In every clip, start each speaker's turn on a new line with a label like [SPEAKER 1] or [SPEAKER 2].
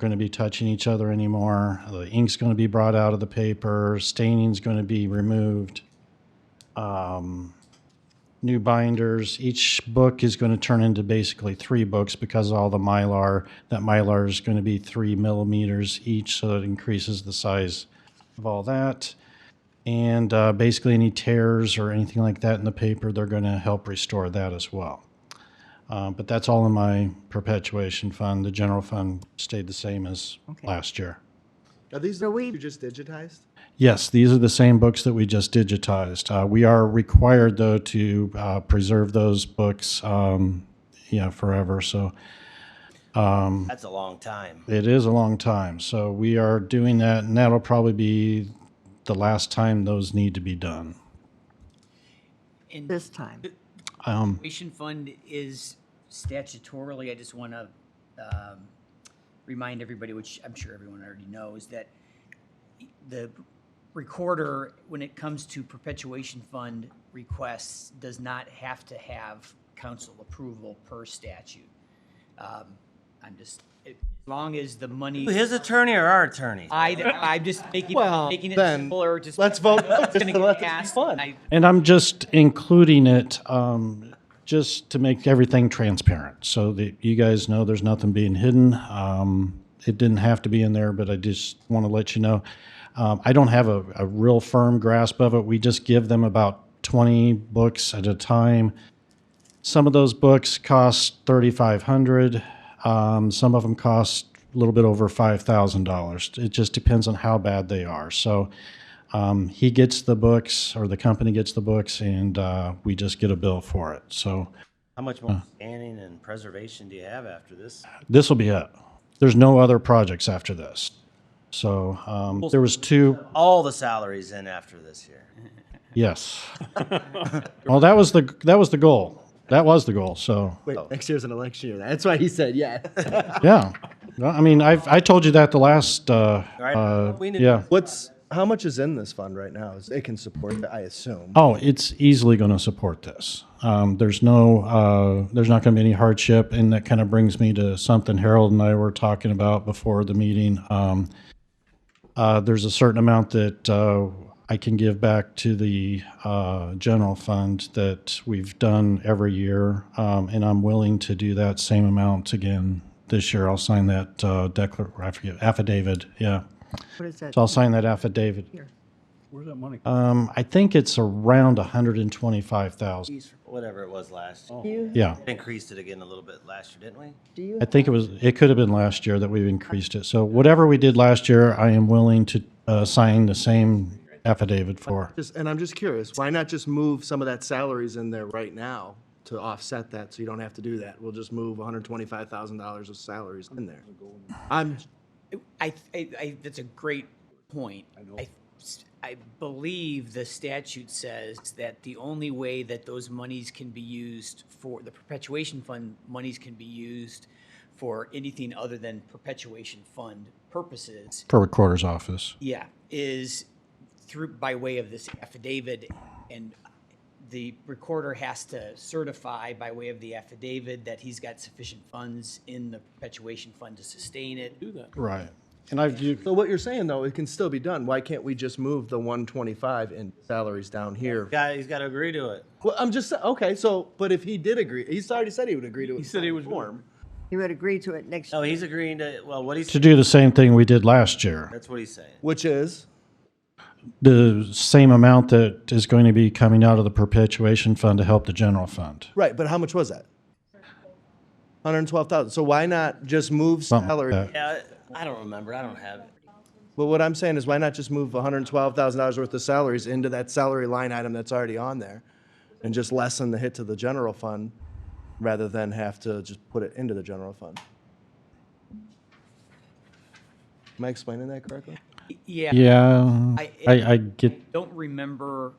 [SPEAKER 1] going to be touching each other anymore. The ink's going to be brought out of the paper. Staining's going to be removed. Um, new binders. Each book is going to turn into basically three books because of all the mylar. That mylar is going to be three millimeters each, so it increases the size of all that. And uh, basically, any tears or anything like that in the paper, they're going to help restore that as well. Uh, but that's all in my perpetuation fund. The general fund stayed the same as
[SPEAKER 2] Okay.
[SPEAKER 1] last year.
[SPEAKER 3] Are these the
[SPEAKER 2] So
[SPEAKER 3] ones
[SPEAKER 2] we-
[SPEAKER 3] you just digitized?
[SPEAKER 1] Yes, these are the same books that we just digitized. Uh, we are required, though, to uh, preserve those books, um, yeah, forever. So
[SPEAKER 4] That's a long time.
[SPEAKER 1] it is a long time. So we are doing that, and that'll probably be the last time those need to be done.
[SPEAKER 5] And
[SPEAKER 2] this time.
[SPEAKER 1] Um,
[SPEAKER 5] tuition fund is statutorily, I just want to remind everybody, which I'm sure everyone already knows, that the recorder, when it comes to perpetuation fund requests, does not have to have council approval per statute. Um, I'm just, as long as the money,
[SPEAKER 4] His attorney or our attorney?
[SPEAKER 5] I, I'm just making,
[SPEAKER 3] Well,
[SPEAKER 5] making it
[SPEAKER 3] then,
[SPEAKER 5] simpler, just.
[SPEAKER 3] let's vote no,
[SPEAKER 5] It's
[SPEAKER 3] just
[SPEAKER 5] gonna
[SPEAKER 3] to let this
[SPEAKER 5] get
[SPEAKER 3] be
[SPEAKER 5] passed,
[SPEAKER 3] fun.
[SPEAKER 5] and I-
[SPEAKER 1] and I'm just including it um, just to make everything transparent so that you guys know there's nothing being hidden. Um, it didn't have to be in there, but I just want to let you know. Um, I don't have a, a real firm grasp of it. We just give them about 20 books at a time. Some of those books cost 3,500. Um, some of them cost a little bit over $5,000. It just depends on how bad they are. So um, he gets the books or the company gets the books and uh, we just get a bill for it. So
[SPEAKER 4] How much more
[SPEAKER 1] Hmm.
[SPEAKER 4] scanning and preservation do you have after this?
[SPEAKER 1] this will be it. There's no other projects after this. So um, there was two,
[SPEAKER 4] All the salaries in after this year.
[SPEAKER 1] yes. well, that was the that was the goal. That was the goal. So
[SPEAKER 3] Wait, next year's an election year. That's why he said yeah.
[SPEAKER 1] yeah, No, I mean I've, I told you that the last uh,
[SPEAKER 4] Right?
[SPEAKER 1] uh,
[SPEAKER 4] We knew-
[SPEAKER 1] yeah.
[SPEAKER 3] What's how much is in this fund right now? Is- It can support that, I assume.
[SPEAKER 1] Oh, it's easily going to support this. Um, there's no, uh, there's not going to be any hardship, and that kind of brings me to something Harold and I were talking about before the meeting. Um, uh, there's a certain amount that uh, I can give back to the uh, general fund that we've done every year, um, and I'm willing to do that same amount again this year. I'll sign that uh, declar- I forget, affidavit. Yeah,
[SPEAKER 2] What is that?
[SPEAKER 1] so I'll sign that affidavit.
[SPEAKER 2] Here.
[SPEAKER 6] Where's that money?
[SPEAKER 1] Um, I think it's around 125,000.
[SPEAKER 4] Whatever it was last year.
[SPEAKER 2] Do you,
[SPEAKER 1] Yeah.
[SPEAKER 4] Increased it again a little bit last year, didn't we?
[SPEAKER 2] do you,
[SPEAKER 1] I think it was, it could have been last year that we've increased it. So whatever we did last year, I am willing to uh, sign the same affidavit for.
[SPEAKER 3] Just, and I'm just curious, why not just move some of that salaries in there right now to offset that, so you don't have to do that? We'll just move $125,000 of salaries in there. I'm,
[SPEAKER 5] I, I, I, that's a great point. I, I believe the statute says that the only way that those monies can be used for, the perpetuation fund monies can be used for anything other than perpetuation fund purposes,
[SPEAKER 1] For recorder's office.
[SPEAKER 5] yeah, is through, by way of this affidavit. And the recorder has to certify by way of the affidavit that he's got sufficient funds in the perpetuation fund to sustain it.
[SPEAKER 1] Right. And I've, you-
[SPEAKER 3] so what you're saying, though, it can still be done. Why can't we just move the 125 in salaries down here?
[SPEAKER 4] Guy, he's got to agree to it.
[SPEAKER 3] Well, I'm just, okay, so, but if he did agree, he's already said he would agree to it. He
[SPEAKER 6] said he was gonna-
[SPEAKER 3] Form.
[SPEAKER 2] you would agree to it next
[SPEAKER 4] No,
[SPEAKER 2] year?
[SPEAKER 4] he's agreeing to, well, what he's,
[SPEAKER 1] to do the same thing we did last year.
[SPEAKER 4] that's what he's saying.
[SPEAKER 3] Which is?
[SPEAKER 1] The same amount that is going to be coming out of the perpetuation fund to help the general fund.
[SPEAKER 3] Right, but how much was that? Hundred and twelve thousand. So why not just move
[SPEAKER 1] Something like
[SPEAKER 3] salary?
[SPEAKER 1] that.
[SPEAKER 4] Yeah, I don't remember. I don't have it.
[SPEAKER 3] But what I'm saying is why not just move hundred and twelve thousand dollars worth of salaries into that salary line item that's already on there? And just lessen the hit to the general fund rather than have to just put it into the general fund? Am I explaining that correctly?
[SPEAKER 5] Yeah.
[SPEAKER 1] Yeah,
[SPEAKER 5] I-
[SPEAKER 1] I, I get,
[SPEAKER 5] don't remember.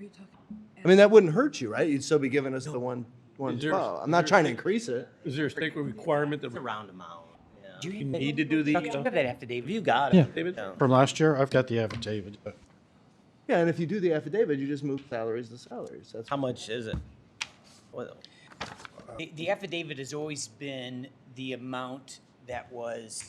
[SPEAKER 3] I mean, that wouldn't hurt you, right? You'd still be giving us the one, one
[SPEAKER 6] Is there-
[SPEAKER 3] twelve. I'm not trying to increase it.
[SPEAKER 6] Is there a state requirement
[SPEAKER 4] It's a
[SPEAKER 6] that
[SPEAKER 4] round amount. Yeah.
[SPEAKER 5] Do
[SPEAKER 6] you
[SPEAKER 5] you
[SPEAKER 6] need to do these?
[SPEAKER 5] have that affidavit?
[SPEAKER 4] If you got it.
[SPEAKER 6] David?
[SPEAKER 4] yeah.
[SPEAKER 1] from last year, I've got the affidavit. but
[SPEAKER 3] Yeah, and if you do the affidavit, you just move salaries to salaries. That's
[SPEAKER 4] How much is it? What-
[SPEAKER 5] The- The affidavit has always been the amount that was